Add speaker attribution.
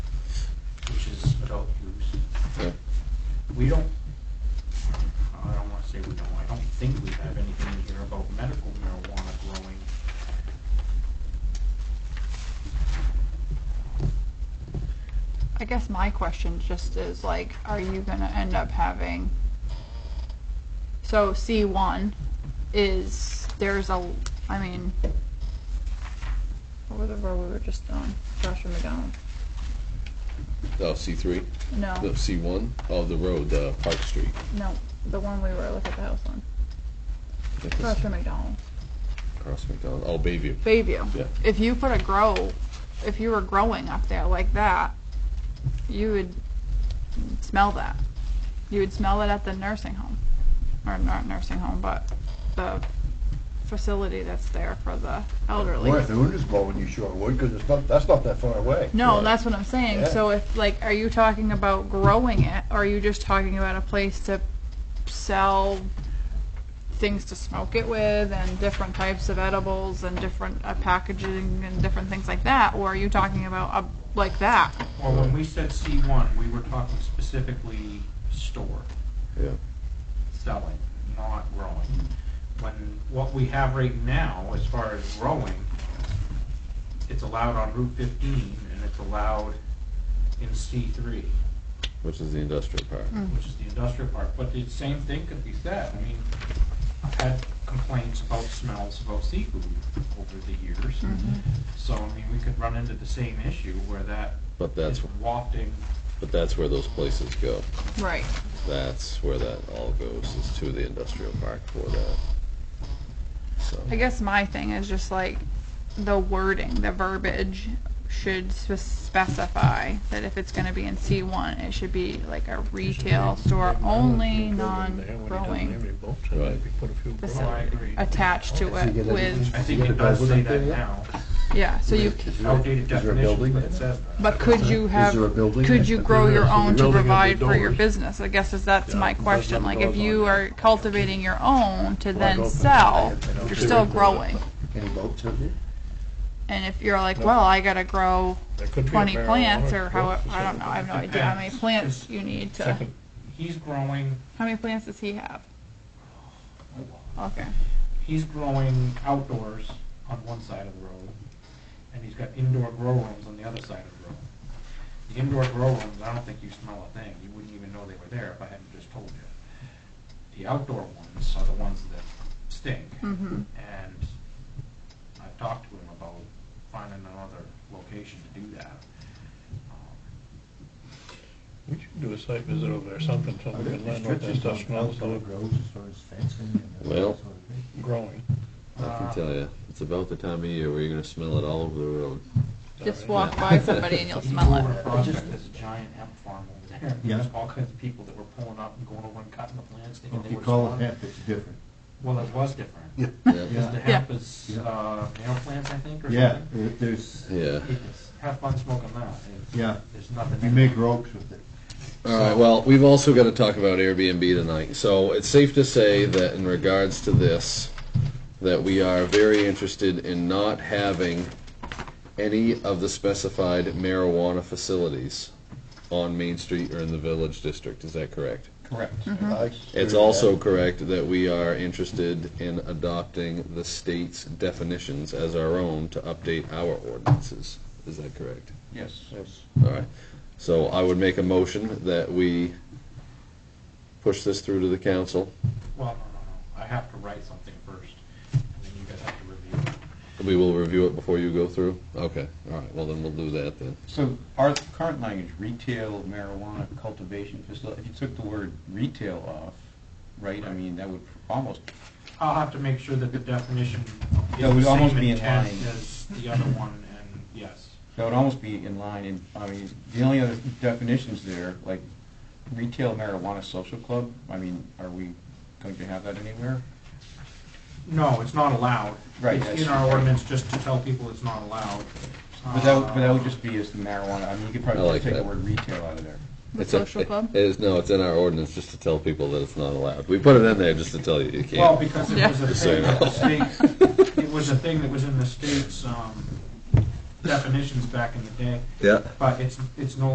Speaker 1: sell-throughs.
Speaker 2: Yeah.
Speaker 1: We don't, I don't wanna say we don't, I don't think we have anything in here about medical marijuana growing.
Speaker 3: I guess my question just is like, are you gonna end up having? So C one is, there's a, I mean, what were the road we were just on? Joshua McDonald?
Speaker 2: Oh, C three? No,
Speaker 3: No,
Speaker 2: C one? Oh, the road, uh, Park Street.
Speaker 3: no, the one we were, look at the house on.
Speaker 2: I think it's
Speaker 3: Joshua McDonald.
Speaker 2: Across McDonald, oh, Bayview.
Speaker 3: Bayview.
Speaker 2: Yeah.
Speaker 3: If you put a grow, if you were growing up there like that, you would smell that. You would smell it at the nursing home, or not nursing home, but the facility that's there for the elderly.
Speaker 4: Well, if the wind is blowing, you sure would, because it's not, that's not that far away.
Speaker 3: No,
Speaker 2: Right.
Speaker 3: that's what I'm saying.
Speaker 4: Yeah.
Speaker 3: So if like, are you talking about growing it, or are you just talking about a place to sell things to smoke it with, and different types of edibles, and different uh, packaging, and different things like that? Or are you talking about a, like that?
Speaker 1: Well, when we said C one, we were talking specifically store,
Speaker 2: Yeah,
Speaker 1: selling, not growing. When, what we have right now, as far as growing, it's allowed on Route fifteen, and it's allowed in C three.
Speaker 2: which is the industrial park.
Speaker 3: Mm.
Speaker 1: which is the industrial park, but the same thing could be said, I mean, I've had complaints about smells about seafood over the years. So, I mean, we could run into the same issue where that
Speaker 2: But that's,
Speaker 1: is wafting,
Speaker 2: but that's where those places go.
Speaker 3: Right.
Speaker 2: That's where that all goes, is to the industrial park for that. So,
Speaker 3: I guess my thing is just like the wording, the verbiage should spe- specify that if it's going to be in C1, it should be like a retail store only, non-growing
Speaker 2: Right.
Speaker 3: facility attached to
Speaker 4: So you
Speaker 3: it
Speaker 4: get a-
Speaker 3: with,
Speaker 1: I think
Speaker 4: You get
Speaker 1: it
Speaker 4: a
Speaker 1: does say
Speaker 4: building up
Speaker 1: that
Speaker 4: there yet?
Speaker 1: now,
Speaker 3: yeah, so you,
Speaker 4: Is there-
Speaker 1: outdated
Speaker 4: is there a
Speaker 1: definition,
Speaker 4: building
Speaker 1: but
Speaker 4: there?
Speaker 1: it says that.
Speaker 3: but could you
Speaker 4: Is
Speaker 3: have,
Speaker 4: there a building
Speaker 3: could
Speaker 4: there?
Speaker 3: you grow your own to
Speaker 5: Building of the
Speaker 3: provide for your
Speaker 5: doors.
Speaker 3: business? I guess is that's my question, like if you are cultivating your own to then
Speaker 4: open,
Speaker 3: sell,
Speaker 4: they don't
Speaker 3: you're
Speaker 4: do
Speaker 3: still
Speaker 4: it.
Speaker 3: growing.
Speaker 4: Any boats out there?
Speaker 3: And if you're like, well, I gotta grow twenty plants or how, I don't know, I have no idea how many
Speaker 1: Depends.
Speaker 3: plants you need to,
Speaker 1: He's growing,
Speaker 3: how many plants does he have? Okay,
Speaker 1: he's growing outdoors on one side of the road, and he's got indoor grow rooms on the other side of the road. The indoor grow rooms, I don't think you smell a thing, you wouldn't even know they were there if I hadn't just told you. The outdoor ones are the ones that stink,
Speaker 3: mhm,
Speaker 1: and I've talked to him about finding another location to do that. Um,
Speaker 5: We should do a site visit over there, something, so we can learn what that stuff smells like
Speaker 4: Grows as far as fencing and that
Speaker 2: Well.
Speaker 4: sort of thing.
Speaker 5: growing.
Speaker 2: I can tell you, it's about the time of year where you're gonna smell it all over the road.
Speaker 3: just walk by somebody and you'll smell
Speaker 1: Over
Speaker 3: it.
Speaker 1: in Prospect, there's a giant hemp farm over there, there's all kinds of people that were pulling up and going over and cutting the plants, thinking
Speaker 4: Well,
Speaker 1: they
Speaker 4: If
Speaker 1: were.
Speaker 4: you call it
Speaker 1: smelling-
Speaker 4: hemp, it's different.
Speaker 1: Well, it was different.
Speaker 2: Yeah,
Speaker 1: Because the
Speaker 4: Yeah.
Speaker 1: hemp is,
Speaker 4: Yeah.
Speaker 1: uh, nail plants, I think, or
Speaker 4: Yeah,
Speaker 1: something.
Speaker 4: it- there's,
Speaker 2: yeah.
Speaker 1: It's- Have fun smoking that. It's-
Speaker 4: Yeah.
Speaker 1: There's nothing.
Speaker 4: you
Speaker 1: in
Speaker 4: make
Speaker 1: it.
Speaker 4: ropes with it.
Speaker 2: All right, well, we've also got to talk about Airbnb tonight. So it's safe to say that in regards to this, that we are very interested in not having any of the specified marijuana facilities on Main Street or in the Village District. Is that correct?
Speaker 4: Correct.
Speaker 2: It's also correct that we are interested in adopting the state's definitions as our own to update our ordinances. Is that correct?
Speaker 4: Yes. Yes.
Speaker 2: All right, so I would make a motion that we push this through to the council.
Speaker 1: Well, no, no, no. I have to write something first, and then you guys have to review it.
Speaker 2: We will review it before you go through? Okay, all right, well then we'll do that then.
Speaker 6: So our current language, retail marijuana cultivation facility, if you took the word retail off, right, I mean, that would almost,
Speaker 1: I'll have to make sure that the definition
Speaker 6: Yeah,
Speaker 1: is
Speaker 6: we'd
Speaker 1: the
Speaker 6: almost
Speaker 1: same
Speaker 6: be in
Speaker 1: intent
Speaker 6: line.
Speaker 1: as the other one, and yes.
Speaker 6: that would almost be in line, and, I mean, the only other definitions there, like retail marijuana social club, I mean, are we going to have that anywhere?
Speaker 1: No, it's not allowed.
Speaker 6: Right,
Speaker 1: It's
Speaker 6: that's-
Speaker 1: in our ordinance just to tell people it's not allowed.
Speaker 6: But that, would- but that would just be as the marijuana, I mean, you could
Speaker 2: I
Speaker 6: probably
Speaker 2: like
Speaker 6: take the
Speaker 2: that.
Speaker 6: word retail out of there.
Speaker 3: The
Speaker 2: It's a-
Speaker 3: social club?
Speaker 2: It is, no, it's in our ordinance just to tell people that it's not allowed. We put it in there just to tell you you
Speaker 1: Well,
Speaker 2: can't.
Speaker 1: because
Speaker 3: Yeah.
Speaker 1: it was a
Speaker 2: Just
Speaker 1: thing that the
Speaker 2: so you
Speaker 1: state, it was a thing that was in the state's um, definitions back in the day,
Speaker 2: Yeah.
Speaker 1: but it's, it's no